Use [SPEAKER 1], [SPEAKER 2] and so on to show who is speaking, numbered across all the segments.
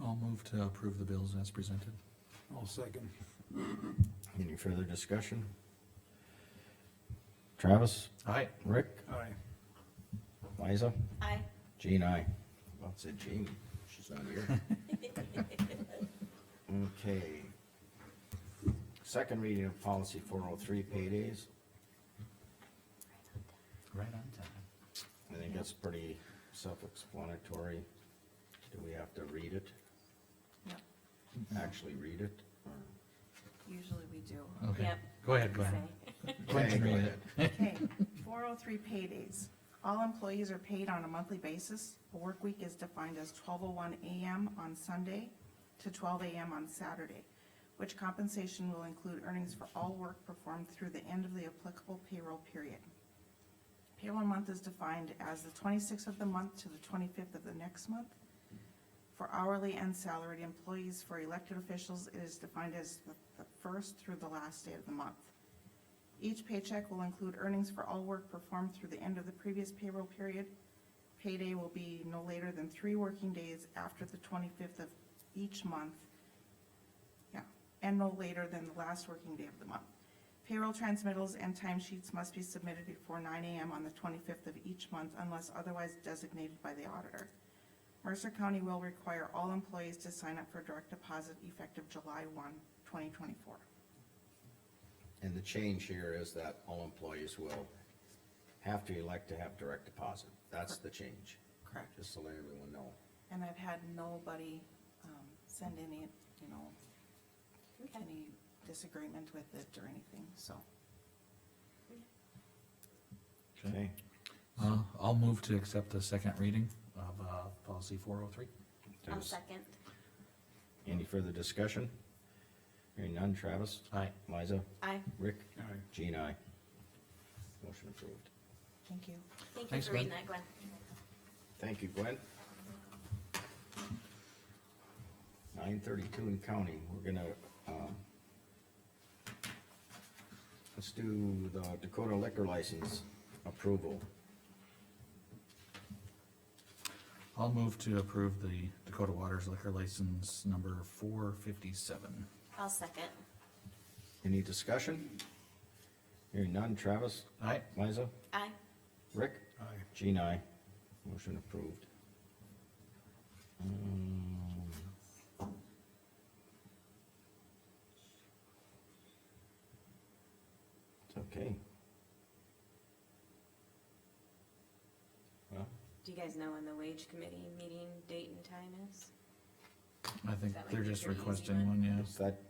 [SPEAKER 1] I'll move to approve the bills as presented.
[SPEAKER 2] I'll second.
[SPEAKER 3] Any further discussion? Travis,
[SPEAKER 1] Aye.
[SPEAKER 3] Rick,
[SPEAKER 2] Aye.
[SPEAKER 3] Liza,
[SPEAKER 4] Aye.
[SPEAKER 3] Jean, I. Well, it said Jean, she's not here. Okay. Second reading of policy four oh three paydays,
[SPEAKER 1] Right on time.
[SPEAKER 3] I think that's pretty self-explanatory. Do we have to read it,
[SPEAKER 4] Yep,
[SPEAKER 1] Mm-hmm.
[SPEAKER 3] actually read it? or-
[SPEAKER 4] usually we do.
[SPEAKER 1] Okay,
[SPEAKER 4] Yep.
[SPEAKER 1] go ahead, go ahead.
[SPEAKER 3] Okay,
[SPEAKER 1] Quentin,
[SPEAKER 3] go
[SPEAKER 1] read
[SPEAKER 3] ahead.
[SPEAKER 1] it.
[SPEAKER 5] Okay, four oh three paydays. All employees are paid on a monthly basis. A work week is defined as twelve oh one AM on Sunday to twelve AM on Saturday, which compensation will include earnings for all work performed through the end of the applicable payroll period. Payroll month is defined as the twenty-sixth of the month to the twenty-fifth of the next month. For hourly and salaried employees, for elected officials, it is defined as the the first through the last day of the month. Each paycheck will include earnings for all work performed through the end of the previous payroll period. Payday will be no later than three working days after the twenty-fifth of each month. Yeah, and no later than the last working day of the month. Payroll transmittals and timesheets must be submitted before nine AM on the twenty-fifth of each month unless otherwise designated by the auditor. Mercer County will require all employees to sign up for direct deposit effective July 1, 2024.
[SPEAKER 3] And the change here is that all employees will have to elect to have direct deposit. That's the change,
[SPEAKER 5] Correct.
[SPEAKER 3] just to let everyone know.
[SPEAKER 5] And I've had nobody, um, send any, you know, any disagreement with it or anything, so.
[SPEAKER 3] Okay.
[SPEAKER 1] Uh, I'll move to accept the second reading of, uh, policy four oh three.
[SPEAKER 4] I'll
[SPEAKER 3] There's
[SPEAKER 4] second.
[SPEAKER 3] any further discussion? Hearing none, Travis,
[SPEAKER 1] Aye.
[SPEAKER 3] Liza,
[SPEAKER 4] Aye.
[SPEAKER 3] Rick,
[SPEAKER 2] Aye.
[SPEAKER 3] Jean, I. Motion approved.
[SPEAKER 5] Thank you.
[SPEAKER 4] Thank you
[SPEAKER 1] Thanks,
[SPEAKER 4] for reading that, Gwen.
[SPEAKER 3] Thank you, Gwen. Nine thirty-two and counting, we're gonna, um, let's do the Dakota liquor license approval.
[SPEAKER 1] I'll move to approve the Dakota Waters liquor license number four fifty-seven.
[SPEAKER 4] I'll second.
[SPEAKER 3] Any discussion? Hearing none, Travis,
[SPEAKER 1] Aye.
[SPEAKER 3] Liza,
[SPEAKER 4] Aye.
[SPEAKER 3] Rick,
[SPEAKER 2] Aye.
[SPEAKER 3] Jean, I, motion approved. Um, It's okay. Well,
[SPEAKER 4] Do you guys know when the wage committee meeting date and time is?
[SPEAKER 1] I think
[SPEAKER 4] That might
[SPEAKER 1] they're
[SPEAKER 4] be a
[SPEAKER 1] just
[SPEAKER 4] pretty easy
[SPEAKER 1] requesting
[SPEAKER 4] one.
[SPEAKER 1] one, yeah,
[SPEAKER 3] is that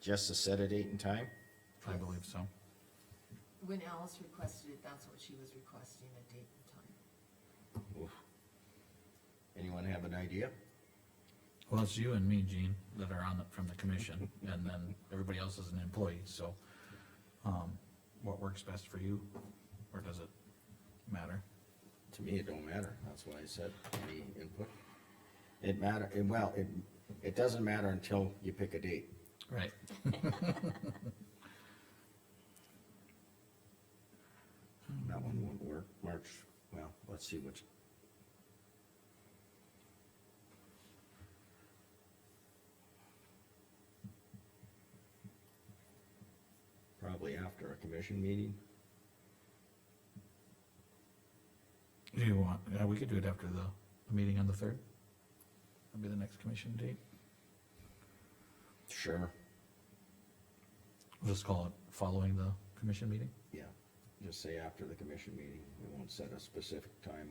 [SPEAKER 3] just to set a date and time?
[SPEAKER 1] I believe so.
[SPEAKER 6] When Alice requested it, that's what she was requesting, a date and time.
[SPEAKER 3] Oof. Anyone have an idea?
[SPEAKER 1] Well, it's you and me, Gene, that are on the, from the commission, and then everybody else is an employee, so, um, what works best for you, or does it matter?
[SPEAKER 3] To me, it don't matter, that's why I said any input. It matter, it- well, it, it doesn't matter until you pick a date.
[SPEAKER 1] Right.
[SPEAKER 3] That one won't work, March, well, let's see which. Probably after a commission meeting,
[SPEAKER 1] Do you want, yeah, we could do it after the, the meeting on the third? That'd be the next commission date,
[SPEAKER 3] sure,
[SPEAKER 1] we'll just call it following the commission meeting?
[SPEAKER 3] yeah, just say after the commission meeting, we won't set a specific time